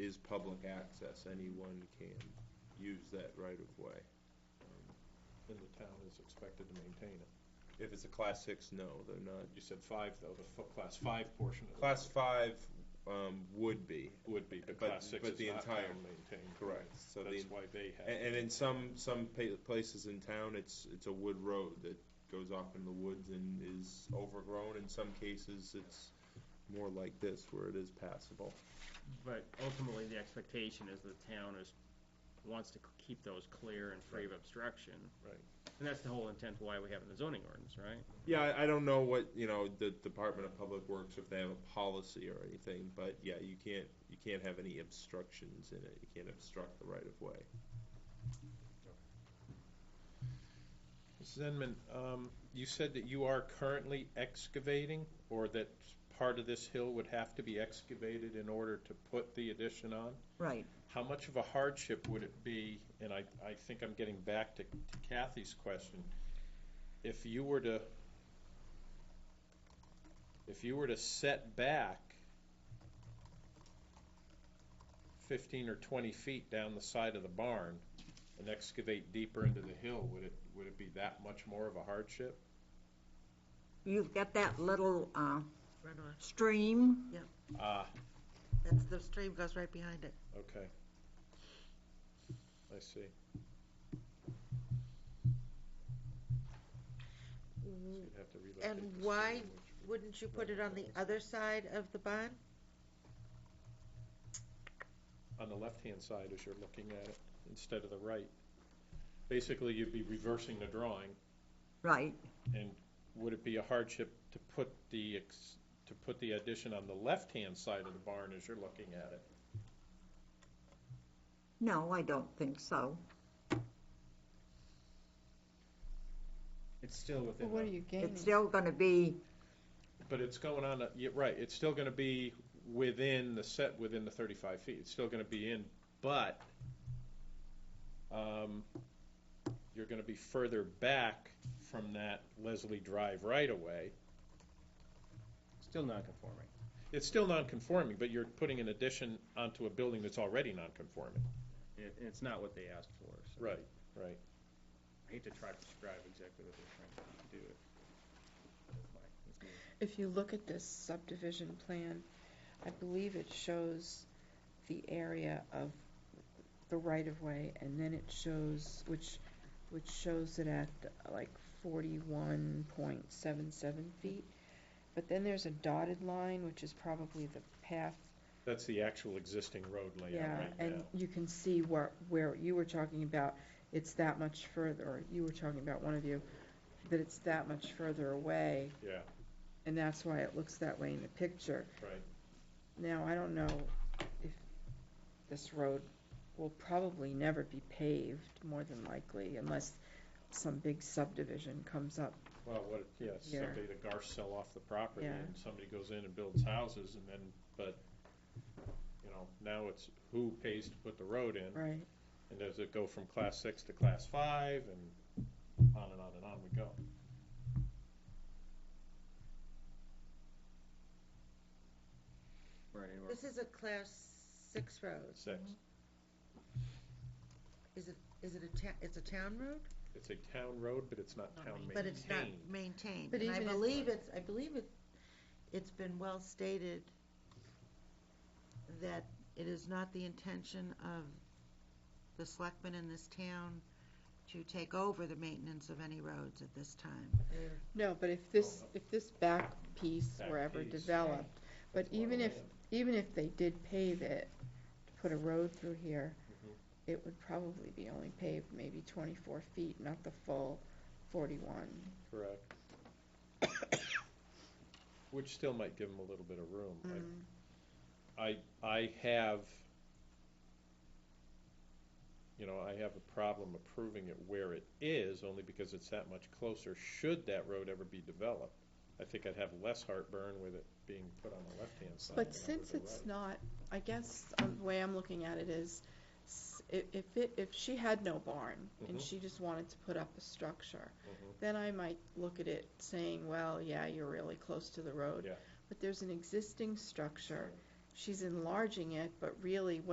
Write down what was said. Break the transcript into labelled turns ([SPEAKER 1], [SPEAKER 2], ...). [SPEAKER 1] is public access, anyone can use that right of way.
[SPEAKER 2] And the town is expected to maintain it.
[SPEAKER 1] If it's a class six, no, they're not.
[SPEAKER 2] You said five, though, the fo- class five portion of the
[SPEAKER 1] Class five, um, would be,
[SPEAKER 2] would be, but
[SPEAKER 1] but-
[SPEAKER 2] class six
[SPEAKER 1] but
[SPEAKER 2] is
[SPEAKER 1] the
[SPEAKER 2] not
[SPEAKER 1] entire-
[SPEAKER 2] town maintained.
[SPEAKER 1] correct, so the,
[SPEAKER 2] That's why they
[SPEAKER 1] and,
[SPEAKER 2] have,
[SPEAKER 1] and in some, some pa- places in town, it's, it's a wood road that goes off in the woods and is overgrown, in some cases, it's more like this, where it is passable.
[SPEAKER 3] But ultimately, the expectation is the town is, wants to c- keep those clear and free of obstruction.
[SPEAKER 2] Right.
[SPEAKER 3] And that's the whole intent why we have it in the zoning ordinance, right?
[SPEAKER 1] Yeah, I, I don't know what, you know, the Department of Public Works, if they have a policy or anything, but yeah, you can't, you can't have any obstructions in it, you can't obstruct the right of way.
[SPEAKER 2] Mrs. Enman, um, you said that you are currently excavating, or that part of this hill would have to be excavated in order to put the addition on?
[SPEAKER 4] Right.
[SPEAKER 2] How much of a hardship would it be, and I, I think I'm getting back to Kathy's question, if you were to, if you were to set back fifteen or twenty feet down the side of the barn and excavate deeper into the hill, would it, would it be that much more of a hardship?
[SPEAKER 4] You've got that little uh, stream.
[SPEAKER 2] Ah,
[SPEAKER 5] That's, the stream goes right behind it.
[SPEAKER 2] okay. I see. So you'd have to relocate
[SPEAKER 5] And
[SPEAKER 2] the stream,
[SPEAKER 5] why
[SPEAKER 2] which
[SPEAKER 5] Wouldn't you put it on the other side of the barn?
[SPEAKER 2] on the left-hand side as you're looking at it instead of the right. Basically, you'd be reversing the drawing.
[SPEAKER 4] Right.
[SPEAKER 2] Would it be a hardship to put the, ex- to put the addition on the left-hand side of the barn as you're looking at it?
[SPEAKER 4] No, I don't think so.
[SPEAKER 3] It's still within
[SPEAKER 6] Well, what are you gaining?
[SPEAKER 4] It's still going to be,
[SPEAKER 2] But it's going on, a- yeah, right, it's still gonna be within the set, within the thirty-five feet. It's still gonna be in, but, um, you're gonna be further back from that Leslie Drive right-of-way.
[SPEAKER 3] Still non-conforming.
[SPEAKER 2] It's still non-conforming, but you're putting an addition onto a building that's already non-conforming.
[SPEAKER 3] It, it's not what they asked for, so.
[SPEAKER 2] Right, right.
[SPEAKER 3] I hate to try to describe exactly what they're trying to do. It's fine, it's me.
[SPEAKER 6] If you look at this subdivision plan, I believe it shows the area of the right-of-way, and then it shows, which, which shows it at like forty-one point seven seven feet. But then there's a dotted line, which is probably the path,
[SPEAKER 2] That's the actual existing road layout
[SPEAKER 6] yeah,
[SPEAKER 2] Oh, right
[SPEAKER 6] and
[SPEAKER 2] now.
[SPEAKER 6] you can see where, where you were talking about, it's that much further, or you were talking about, one of you, that it's that much further away.
[SPEAKER 2] Yeah,
[SPEAKER 6] And that's why it looks that way in the picture.
[SPEAKER 2] Right.
[SPEAKER 6] Now, I don't know if this road will probably never be paved, more than likely, unless some big subdivision comes up.
[SPEAKER 2] well, what, yeah,
[SPEAKER 6] Yeah.
[SPEAKER 2] somebody, the Garsh sell off the property
[SPEAKER 6] Yeah.
[SPEAKER 2] and somebody goes in and builds houses and then, but, you know, now it's who pays to put the road in?
[SPEAKER 6] Right.
[SPEAKER 2] And does it go from class six to class five and on and on and on we go?
[SPEAKER 3] Right, anywhere.
[SPEAKER 5] This is a class six road.
[SPEAKER 2] Six.
[SPEAKER 5] Is it a town, it's a town road?
[SPEAKER 2] It's a town road, but it's not town maintained.
[SPEAKER 5] But it's not maintained.
[SPEAKER 6] But
[SPEAKER 5] And I
[SPEAKER 6] even if-
[SPEAKER 5] believe it's, I believe it, it's been well stated that it is not the intention of the selectmen in this town to take over the maintenance of any roads at this time. They're-
[SPEAKER 6] No, but if this, if this back piece
[SPEAKER 2] Back
[SPEAKER 6] were ever
[SPEAKER 2] piece.
[SPEAKER 6] developed, but
[SPEAKER 2] That's a lot of
[SPEAKER 6] even if,
[SPEAKER 2] land.
[SPEAKER 6] even if they did pave it, to put a road through here,
[SPEAKER 2] Mhm.
[SPEAKER 6] it would probably be only paved maybe twenty-four feet, not the full forty-one.
[SPEAKER 2] Correct. Which still might give them a little bit of room. I- I, I have, you know, I have a problem approving it where it is, only because it's that much closer, should that road ever be developed. I think I'd have less heartburn with it being put on the left-hand side. than I
[SPEAKER 6] But
[SPEAKER 2] would
[SPEAKER 6] since
[SPEAKER 2] the
[SPEAKER 6] it's
[SPEAKER 2] right.
[SPEAKER 6] not, I guess, um, the way I'm looking at it is, s- i- if it, if she had no barn and
[SPEAKER 2] Mhm.
[SPEAKER 6] she just wanted to put up a structure,
[SPEAKER 2] Mhm.
[SPEAKER 6] then I might look at it saying, well, yeah, you're really close to the road.
[SPEAKER 2] Yeah.
[SPEAKER 6] But there's an existing structure, she's enlarging it, but really what